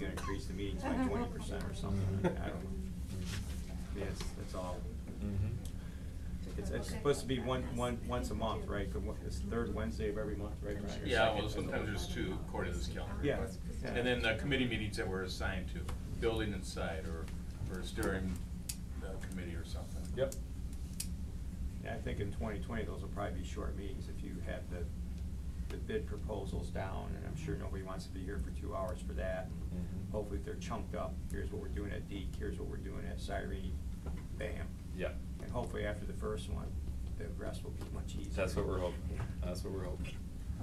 increase the meetings Uh-huh. by twenty percent or something, I I don't know. Yes, that's all. Mm-hmm. It's, it's supposed to be one, one, once a month, right? The one- It's the third Wednesday of every month, right, Brian? Or Yeah, second? well, sometimes there's two according to this calendar. Yeah, but- yeah. And then the committee meetings that we're assigned to, building inside or, or steering the committee or something. Yep. Yeah, I think in twenty twenty, those will probably be short meetings if you have the, the bid proposals down, and I'm sure nobody wants to be here for two hours for that. Mhm. Hopefully if they're chunked up, here's what we're doing at Deke, here's what we're doing at Cyrene, bam. Yeah, And hopefully after the first one, the rest will be much easier. that's what we're hoping, that's what we're hoping.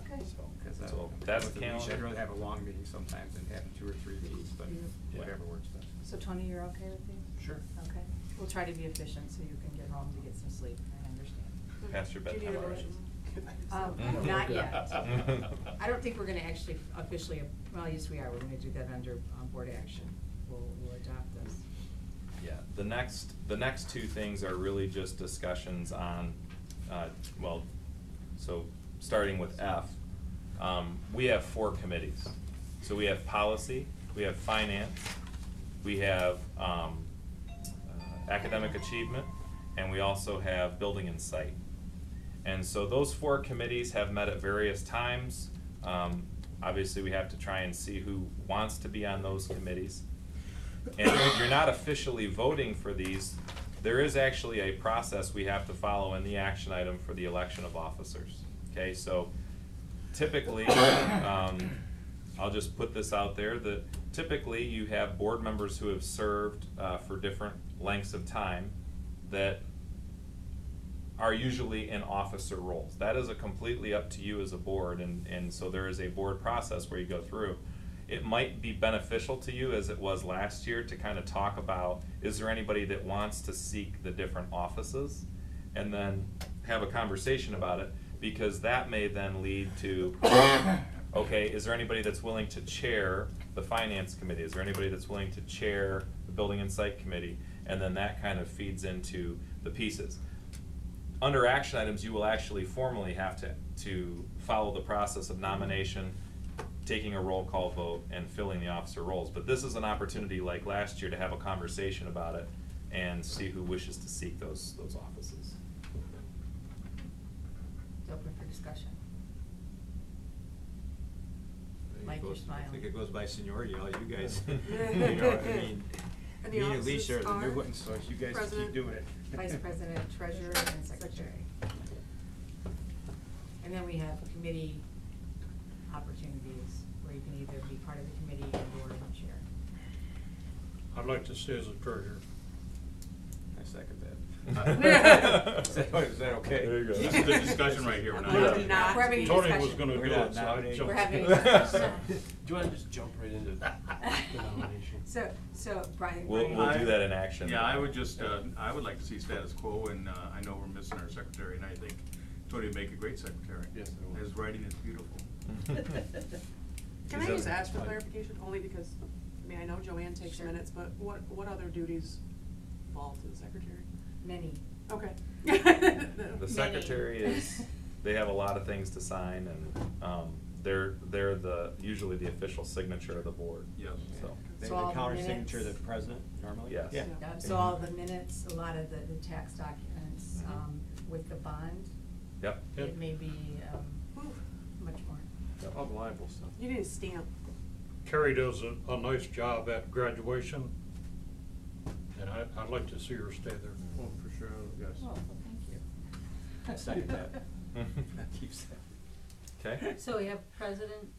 Okay. So, Because, uh, so that's with the meetings, I'd calendar. rather have a long meeting sometimes than having two or three meetings, but Yeah. whatever works best. So Tony, you're okay with these? Sure. Okay, we'll try to be efficient so you can get home to get some sleep, I understand. Past your Mm-hmm. Do you need bedtime a already. Um, not yet. I don't think we're gonna actually officially, well, yes, we are, we're gonna do that under um, board action, we'll, we'll adopt this. Yeah, the next, the next two things are really just discussions on, uh, well, so, starting with F. Um, we have four committees. So we have policy, we have finance, we have, um, uh, academic achievement, and we also have building and site. And so those four committees have met at various times. Um, obviously, we have to try and see who wants to be on those committees. And if you're not officially voting for these, there is actually a process we have to follow in the action item for the election of officers. Okay, so typically, um, I'll just put this out there, that typically you have board members who have served, uh, for different lengths of time that are usually in officer roles. That is a completely up to you as a board, and, and so there is a board process where you go through. It might be beneficial to you, as it was last year, to kind of talk about, is there anybody that wants to seek the different offices? And then have a conversation about it, because that may then lead to, okay, is there anybody that's willing to chair the finance committee? Is there anybody that's willing to chair the building and site committee? And then that kind of feeds into the pieces under action items, you will actually formally have to, to follow the process of nomination, taking a roll call vote, and filling the officer roles. But this is an opportunity like last year to have a conversation about it and see who wishes to seek those, those offices. It's open for discussion. Mike, you're I think it smiling. goes by seniority, all you guys, you know, I mean, And me the and offices Alicia are the new are ones, so you guys can keep President, doing it. Vice President, Treasurer, and Secretary. And then we have committee opportunities, where you can either be part of the committee or board and chair. I'd like to stay as a treasurer. I second that. Is that. Is that okay? There you go. This is the discussion right here, we're not. We're having it. not- we're having a Tony was discussion. gonna We're do not it, so I nominating. jumped. We're having a discussion. Do you want to just jump right into the nomination? So, so Brian. We'll, Brian- we'll do that in action. Yeah, I would just, uh, I would like to see status quo, and uh, I know we're missing our secretary, and I think Tony would make a great secretary. Yes, I would. His writing is beautiful. Can Is I that- just ask for clarification, only because, I mean, I know Joanne takes Sure. minutes, but what, what other duties fall to the secretary? Many. Okay. The secretary is, they have a lot of things to sign and, um, they're, they're the, usually the official signature of the board. Yes. So, They- So all They the counter signature the minutes- president normally? Yes. Yeah. Yeah. Um, So all the minutes, a lot of the, the tax documents, Mhm. um, with the bond, yep. Yep. it may be, um, much more. yep. All the libel stuff. You need a stamp. Carrie does a, a nice job at graduation, and I, I'd like to see her stay there. Well, for sure, Oh, yes. well, thank you. I second that. Keeps Okay. So we have president,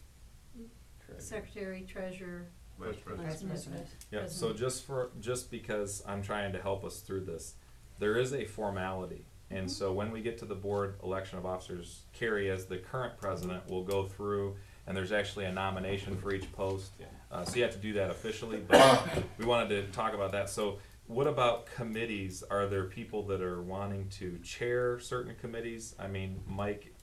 that. secretary, treasurer, Vice President. vice president. Yeah, so President. just for, just because I'm trying to help us through this, there is a formality. And so when we get to the board election of officers, Carrie, as the current president, will go through, and there's actually a nomination for each post. Yeah. Uh, so you have to do that officially, but we wanted to talk about that. So what about committees? Are there people that are wanting to chair certain committees? I mean, Mike,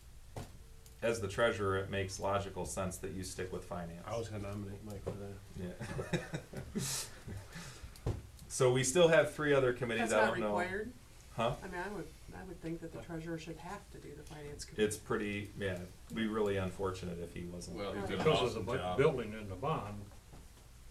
as the treasurer, it makes logical sense that you stick with finance. I was gonna nominate Mike for that. Yeah. So we still have three other committees, That's I not don't know. required. Huh? I mean, I would, I would think that the treasurer should have to do the finance committee. It's pretty, yeah, it'd be really unfortunate if he wasn't. Well, he's he's done an Because of awesome the bu- job. building and the bond,